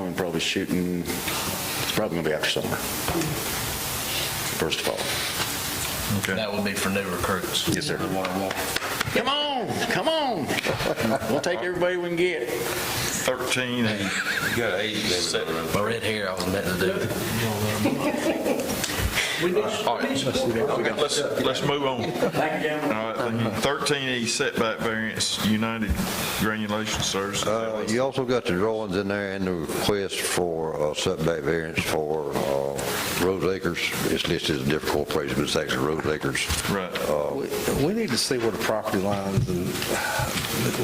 was shooting, it's probably going to be after summer, first of all. That would be for new recruits. Yes, sir. Come on, come on. We'll take everybody we can get. 13 and You got eight. My red hair, I was meant to do. it. Let's, let's move on. All right, thank you. 13E setback variance, United Granulation Services. Uh, You also got the drawings in there and the request for uh, setback variance for uh, Rose Acres. It's listed as a different corporation, but it's actually Rose Acres. Right. We we need to see where the property lines and